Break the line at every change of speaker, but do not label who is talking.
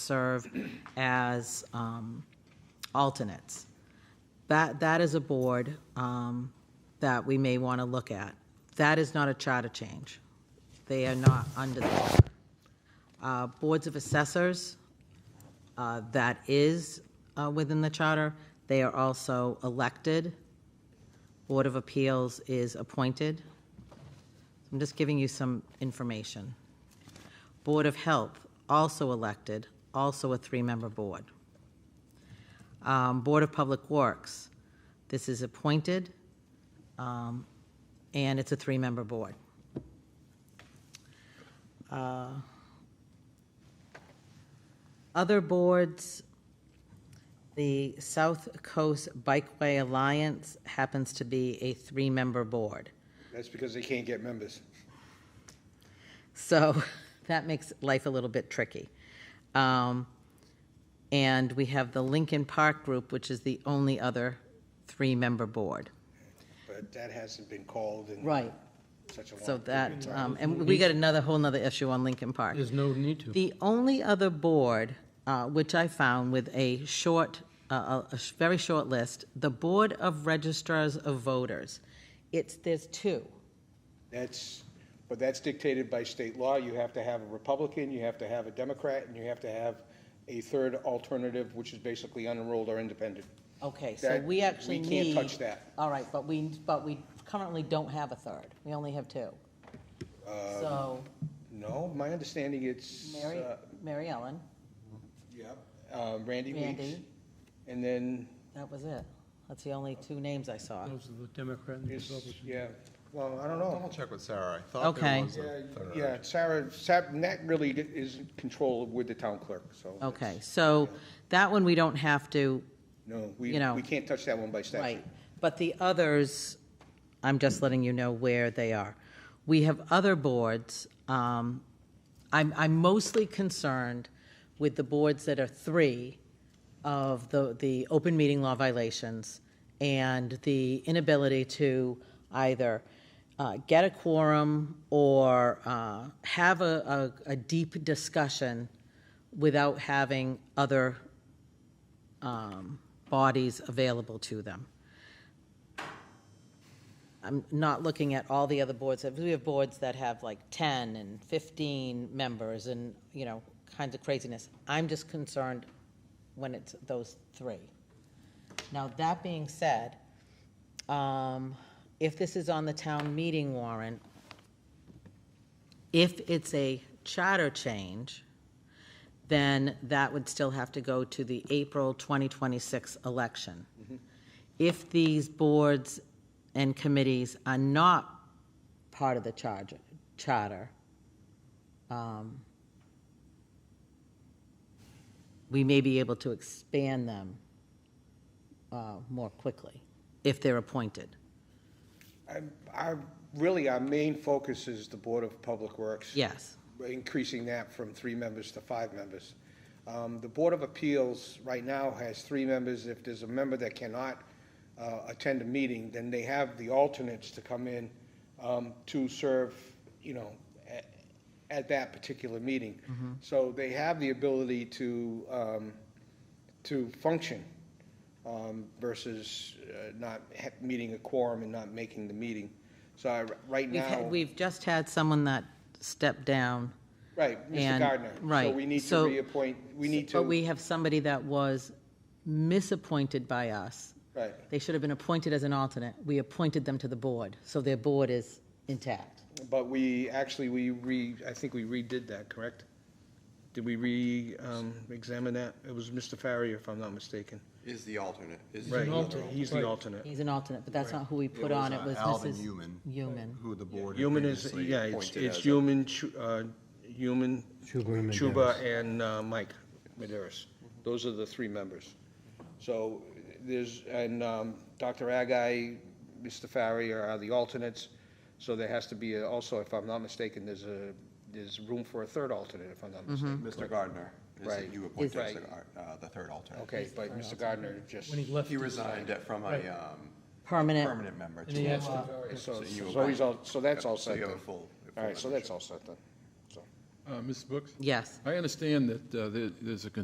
serve as um, alternates. That, that is a board um, that we may want to look at. That is not a charter change. They are not under the charter. Uh, Boards of assessors, uh, that is uh, within the charter. They are also elected. Board of Appeals is appointed. I'm just giving you some information. Board of Health, also elected, also a three-member board. Um, Board of Public Works, this is appointed, um, and it's a three-member board. Uh, Other boards, the South Coast Bikeway Alliance happens to be a three-member board.
That's because they can't get members.
So that makes life a little bit tricky. Um, And we have the Lincoln Park Group, which is the only other three-member board.
But that hasn't been called in such a long.
So that, um, and we got another, whole nother issue on Lincoln Park.
There's no need to.
The only other board, uh, which I found with a short, uh, a a sh- very short list, the Board of Registrars of Voters. It's, there's two.
That's, but that's dictated by state law. You have to have a Republican, you have to have a Democrat, and you have to have a third alternative, which is basically unenrolled or independent.
Okay, so
That-
we actually
we
need.
can't touch that.
All right, but we, but we currently don't have a third. We only have two.
Uh,
So
No, my understanding it's,
Mary,
uh,
Mary Ellen,
yep, uh, Randy Weeks.
Randy.
And then
that was it. That's the only two names I saw.
Those are the Democrat and the
it's,
Republican.
yeah, well, I don't
I'll
know.
check with Sarah. I thought
Okay.
there was a
Yeah,
third.
Yeah, Sarah, Sarah, that really is in control with the town clerk, so.
Okay, so that one we don't have to,
No, we,
You know.
we can't touch that one by statute.
right. But the others, I'm just letting you know where they are. We have other boards. um, I'm, I'm mostly concerned with the boards that are three of the, the open meeting law violations and the inability to either uh, get a quorum or uh, have a, a, a deep discussion without having other um, bodies available to them. I'm not looking at all the other boards, we have boards that have like 10 and 15 members and, you know, kinds of craziness. I'm just concerned when it's those three. Now, that being said, um, if this is on the town meeting warrant, if it's a charter change, then that would still have to go to the April 2026 election. If these boards and committees are not part of the charger- charter, um, we may be able to expand them uh, more quickly if they're appointed.
I'm- I'm, really, our main focus is the Board of Public Works.
Yes,
We're increasing that from three members to five members. Um, The Board of Appeals right now has three members. If there's a member that cannot uh, attend a meeting, then they have the alternates to come in um, to serve, you know, a- at that particular meeting.
Mm-hmm.
So they have the ability to, um, to function um, versus uh, not ha- meeting a quorum and not making the meeting. So I- right
we've, had-
now,
we've just had someone that stepped down.
right, Mr.
and-
Gardner. So
right,
we need to
so-
reappoint, we need
But
to,
we have somebody that was misappointed by us.
right,
They should have been appointed as an alternate. We appointed them to the board, so their board is intact.
but we, actually, we re, I think we redid that, correct? Did we re-examine that? It was Mr. Farrier, if I'm not mistaken.
Is the alternate. Is
Right,
an alternate.
he's the
Right.
alternate.
He's an alternate, but that's not who we
It
put on. It
uh,
was
Alvin
Mrs.
Newman,
Newman.
Who the board. had
Human is,
previously
yeah, it's,
appointed
it's
as a-
Human, Chu- uh, Human, Chuba, and uh, Mike Maderas. Those are the three members. So there's, and um, Dr. Agai, Mr. Farrier are the alternates. So there has to be a- also, if I'm not mistaken, there's a, there's room for a third alternate, if I'm not mistaken.
Mr. Gardner. Is
Right.
it you appointed as
Right.
the, gar- uh, the third alternate?
Okay, but Mr. Gardner just,
When he left,
He resigned it from a, um,
Permanent.
permanent member
and he
to.
asked,
so,
you
so he's all, so that's all
So
set
you have
then.
a full. a full
All right, so
membership.
that's all set then, so.
uh,
Uh, Ms. Brooks?
Yes.
I understand that uh, there- there's a concern